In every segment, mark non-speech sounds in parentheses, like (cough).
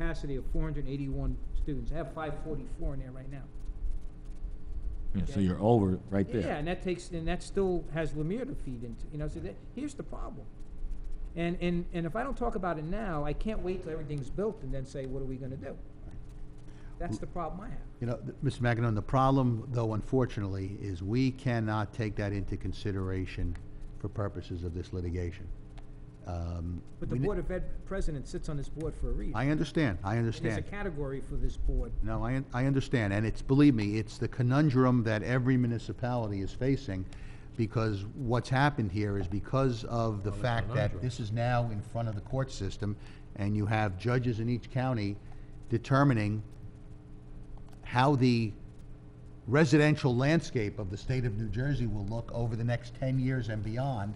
capacity of four hundred and eighty-one students. I have five forty-four in there right now. Yeah, so Okay. you're over right there. Yeah, and that takes, and that still has Lemire to feed into, you know, so that, here's the problem. And, and, and if I don't talk about it now, I can't wait till everything's built and then say, what are we gonna do? That's the problem I have. You know, th- Mr. Magnon, the problem, though, unfortunately, is we cannot take that into consideration for purposes of this litigation. Um, But the we ne- Board of Ed president sits on this board for a reason. I understand, I And There's a understand. category for this board. No, I, un- I understand, and it's, believe me, it's the conundrum that every municipality is facing, because what's happened here is because of the fact that this is now in front of the court system, and you have judges in each county determining how the residential landscape of the state of New Jersey will look over the next ten years and beyond,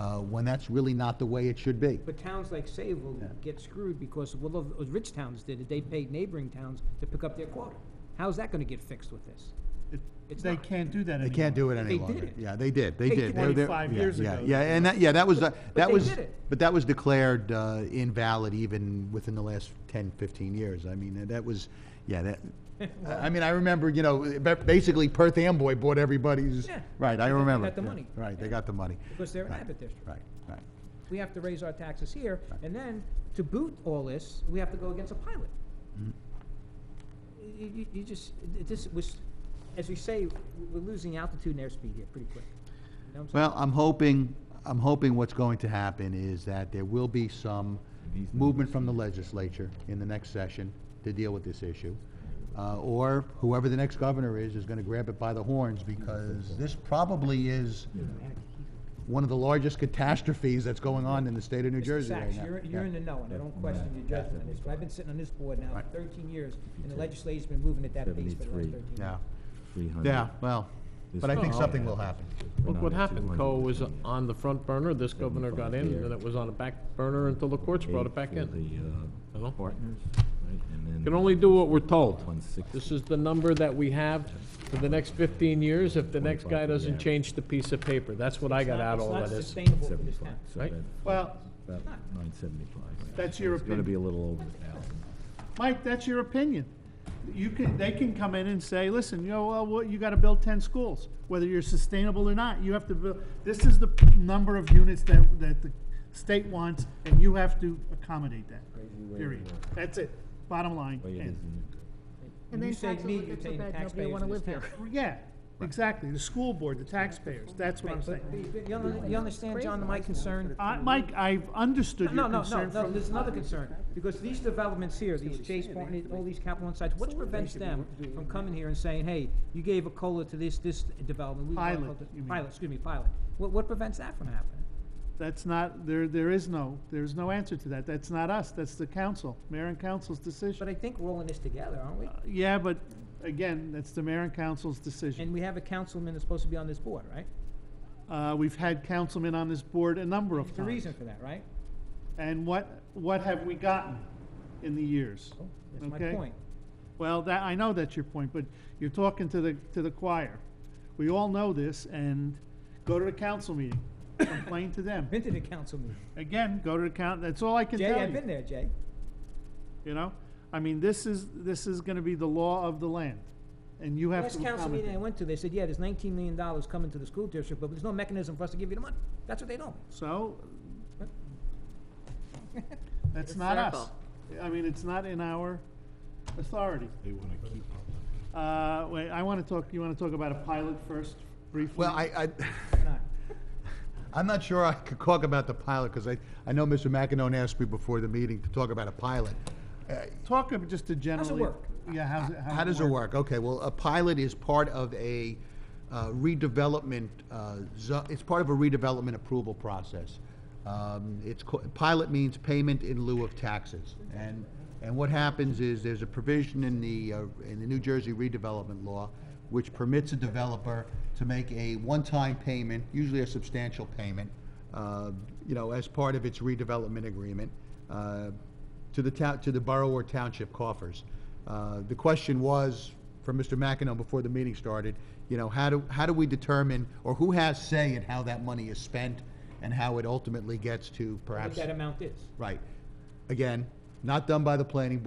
uh, when that's really not the way it should be. But towns like Sayville Yeah. get screwed because, well, those- those rich towns did it, they paid neighboring towns to pick up their quota. How's that gonna get fixed with this? It's They not. can't do that anymore. They can't do it any They longer. did it. Yeah, they did, they They did. did They're- they're- 25 yeah, years yeah, ago. Yeah, and that, yeah, that was, uh, that they was, did it. but that was declared uh, invalid even within the last 10, 15 years. I mean, that was, (laughs) yeah, that, I I mean, I remember, you know, ba- basically Perth Amboy bought everybody's, Yeah, right, I they remember. got the yeah, money. Right, they got the money. Because they're an Right, Abbott district. Right, right. we have to raise our taxes here, and then, to boot all this, we have to go against a pilot. Mm-hmm. You, you- you just, this was, as we say, we're losing altitude and airspeed here pretty quick. You know what I'm saying? Well, I'm hoping, I'm hoping what's going to happen is that there will be some movement from the legislature in the next session to deal with this issue. Uh, or whoever the next governor is, is gonna grab it by the horns, because this probably is one of the largest catastrophes that's going on in the state of New Mr. Jersey right Sachs, now. you're, you're in the know, and I don't question your judgment on this, but I've been sitting on this board now Right. for thirteen years, and the legislature's been moving at that pace for the last 73. thirteen years. Yeah, Three hundred. yeah, well, but I think something will happen. Look what happened. Coe was uh, on the front burner, this governor got in, and then it was on the back burner until the courts brought it back in. The Hello? uh, partners, right, and then. Can only do what we're told. One sixty. This is the number that we have for the next 15 years, if the next guy doesn't change the piece of paper. That's what I got out of all of It's this. not sustainable for this Seventy-five, town. so Right. that- Well, About nine seventy-five. That's your It's gonna be a little over a thousand. Mike, that's your opinion. You can, they can come in and say, listen, you know, well, what- you gotta build ten schools, whether you're sustainable or not, you have to build, this is the number of units that, that the state wants, and you have to accommodate that, period. That's it, bottom line, Way it is end. in the- When And then you say taxes me, will you're get so saying bad, nobody taxpayers will want to in this live here. town. Yeah, exactly, the school board, the taxpayers, that's what I'm Right, but saying. you- you under- You understand, John, my concern? I, Mike, I've understood No, no, your no, concern no, from there's another concern, because these developments here, these Chase Point, and all these Capital One sites, what prevents them from coming here and saying, hey, you gave a COLA to this, this development? we want a Pilot, COLA to-" you mean. Pilot, excuse me, pilot. What, what prevents that from happening? That's not, there, there is no, there's no answer to that. That's not us, that's the council, mayor and council's But decision. I think we're all in this together, aren't we? Yeah, but again, that's the mayor and council's decision. And we have a councilman that's supposed to be on this board, right? Uh, we've had councilmen on this board a number of There's a reason times. for that, right? And what, what have we gotten in the years? That's my Okay. point. Well, that, I know that's your point, but you're talking to the, to the choir. We all know this, and go to the council meeting, complain (laughs) to them. Been to the council meeting. Again, go to the coun, that's all I can tell Jay, you. I've been there, Jay. You know, I mean, this is, this is gonna be the law of the land, and you have Last to council meeting I accommodate. went to, they said, yeah, there's nineteen million dollars coming to the school district, but there's no mechanism for us to give you the money. That's what they told me. So, that's not us. I mean, it's not in our authority. They wanna keep. Uh, wait, I wanna talk, you wanna talk about a pilot first, briefly? Well, I, (laughs) I, Not. I'm not sure I could talk about the pilot, because I, I know Mr. McEnon asked me before the meeting to talk about a pilot. Uh, Talk of just a generally. work? Yeah, how's it, How does it work? Okay, well, a pilot is part of a uh, redevelopment, uh, zo- it's part of a redevelopment approval process. Um, It's, co- pilot means payment in lieu of taxes. And, and what happens is, there's a provision in the, uh, in the New Jersey redevelopment law, which permits a developer to make a one-time payment, usually a substantial payment, uh, you know, as part of its redevelopment agreement, uh, to the town, to the borough or township coffers. Uh, The question was, from Mr. McEnon before the meeting started, you know, how do, how do we determine, or who has say in how that money is spent and how it ultimately gets to What perhaps, that amount is. right. Again, not done by the planning board.